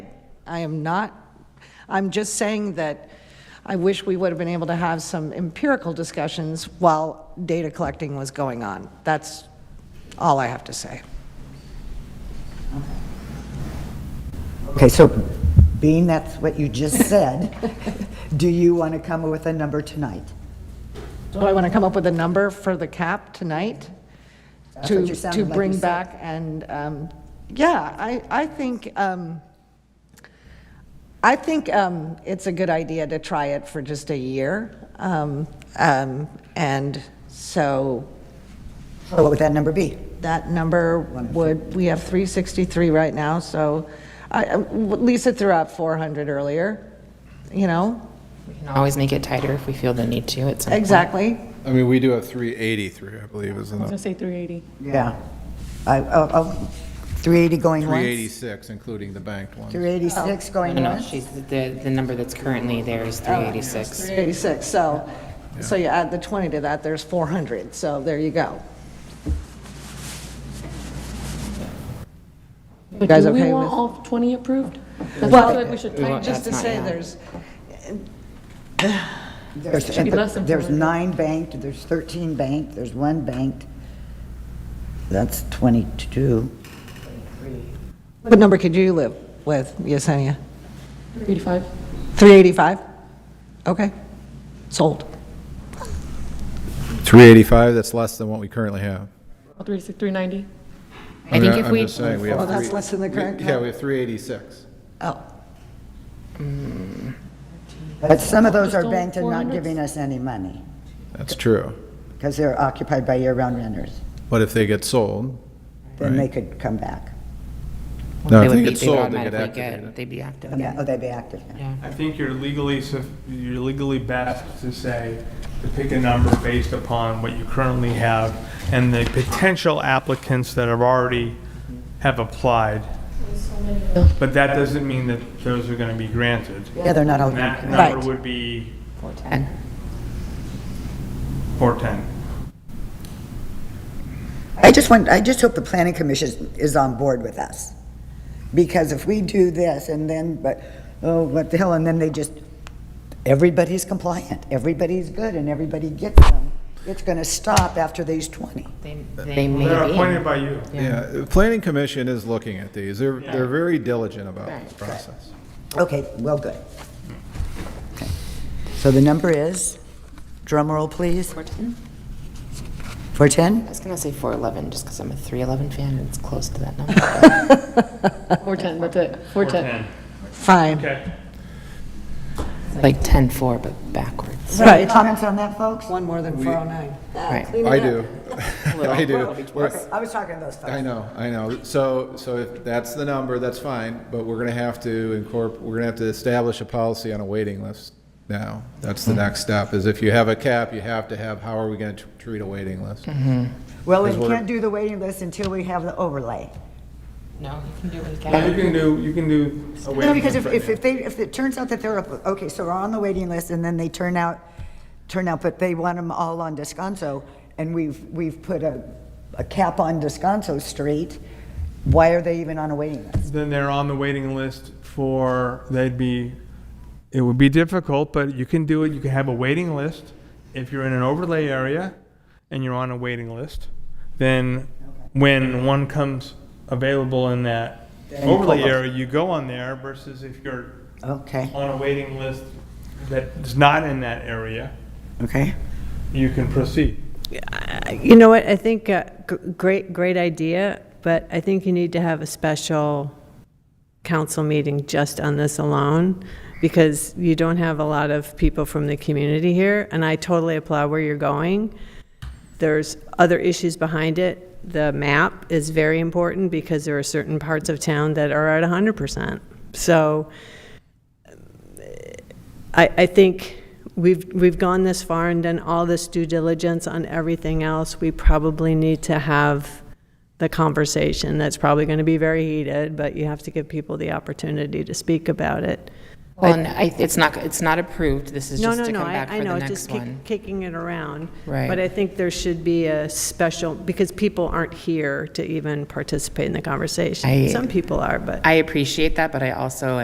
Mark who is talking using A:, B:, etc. A: I am not, I'm just saying that I wish we would have been able to have some empirical discussions while data collecting was going on. That's all I have to say.
B: Okay, so being that's what you just said, do you want to come with a number tonight?
A: Do I want to come up with a number for the cap tonight?
B: That's what
A: To,
B: you're sounding
A: to
B: like you
A: bring
B: said.
A: back and, um, yeah, I, I think, um, I think um, it's a good idea to try it for just a year. Um, um, And so
B: What would that number be?
A: that number would, we have 363 right now, so I- I- Lisa threw out 400 earlier, you know?
C: We can always make it tighter if we feel the need to at some point.
A: Exactly.
D: I mean, we do have 383, I believe, is the
E: I
D: number.
E: was gonna say 380.
B: Yeah. I, oh, oh, 380 going once?
D: 386, including the banked one.
B: 386
C: No,
B: going
C: No, no,
B: once?
C: she's, the, the number that's currently there is
F: Oh,
C: 386.
A: 86, so, so you add the 20 to that, there's 400, so there you go.
E: But
A: guys
E: do we
A: okay
E: want
A: with-
E: all 20 approved? That's
A: Well-
E: I feel like we should
C: We want-
E: tighten
A: Just to
C: That's not
A: say,
C: bad.
A: there's,
B: There's-
E: should be less than
B: There's
E: 400.
B: nine banked, there's 13 banked, there's one banked. That's 22.
A: what number could you live with, Yesenia?
E: 385.
A: 385? Okay, sold.
D: 385, that's less than what we currently have.
E: All 386, 390.
C: I think if we,
D: I'm just saying, we have.
A: Well, that's
D: three-
A: less than the
D: we-
A: current
D: Yeah, we have 386.
A: Oh,
B: But some of those are
E: Just all
B: banked and not
E: 400s?
B: giving us any money
D: That's true.
B: because they're occupied by year-round renters.
D: But if they get sold,
B: Then they
D: Right.
B: could come back.
D: no,
C: they
D: if
C: would
D: they
C: be,
D: get
C: they would
D: sold, they get
C: automatically get,
D: activated.
C: they'd be active.
B: Yeah, Oh, they'd be active now.
C: Yeah.
G: I think you're legally, suf- you're legally best to say, to pick a number based upon what you currently have and the potential applicants that have already have applied. But that doesn't mean that those are gonna be granted.
B: Yeah, they're not all.
G: And that
A: Right.
G: number would be
C: 410.
G: 410.
B: I just want, I just hope the planning commission is on board with us. Because if we do this and then, but, oh, what the hell, and then they just, everybody's compliant, everybody's good, and everybody gets them, it's gonna stop after these 20.
C: They,
D: Uh,
C: they may
G: They're
C: be.
G: appointed by you.
D: Yeah, the planning commission is looking at these. They're, they're very diligent about this process.
B: Okay, well, good. Okay. So the number is, drum roll, please,
C: 410?
B: 410?
C: I was gonna say 411, just because I'm a 311 fan, and it's close to that number.
E: 410, that's it. 410.
A: fine.
G: Okay.
C: Like 104, but backwards.
B: Any comments on that, folks?
A: One more than 409.
C: Right.
D: I do. I do. We're-
B: I was talking to those folks.
D: I know, I know. So, so if that's the number, that's fine, but we're gonna have to incorporate, we're gonna have to establish a policy on a waiting list now. That's the next step, is if you have a cap, you have to have, how are we gonna tr- treat a waiting list?
B: Well, we
D: Because we're-
B: can't do the waiting list until we have the overlay.
C: No, you can do it
G: Yeah, you
C: again.
G: can do, you can do a
B: No,
G: waiting
B: because if,
G: list
B: if
G: right
B: if they, if it turns out that they're, up- okay, so we're on the waiting list, and then they turn out, turn out, but they want them all on Descanso, and we've, we've put a, a cap on Descanso Street, why are they even on a waiting list?
G: now. Then they're on the waiting list for, they'd be, it would be difficult, but you can do it. You can have a waiting list. If you're in an overlay area and you're on a waiting list, then when one comes available in that
B: you
G: overlay
B: pull up.
G: area, you go on there versus if you're
B: Okay,
G: on a waiting list that's not in that area,
B: okay.
G: you can proceed.
F: You know what, I think, uh, g- great, great idea, but I think you need to have a special council meeting just on this alone, because you don't have a lot of people from the community here, and I totally applaud where you're going. There's other issues behind it. The map is very important, because there are certain parts of town that are at 100%. So, I, I think we've, we've gone this far and done all this due diligence on everything else. We probably need to have the conversation. That's probably going to be very heated, but you have to give people the opportunity to speak about it.
C: Well, and I, it's not, it's not approved, this is
F: No,
C: just
F: no,
C: to
F: no,
C: come
F: I,
C: back
F: I
C: for the
F: know, just
C: next
F: kick-
C: one.
F: kicking it around.
C: Right.
F: But I think there should be a special, because people aren't here to even participate in the conversation.
C: I-
F: Some people are, but.
C: I appreciate that, but I also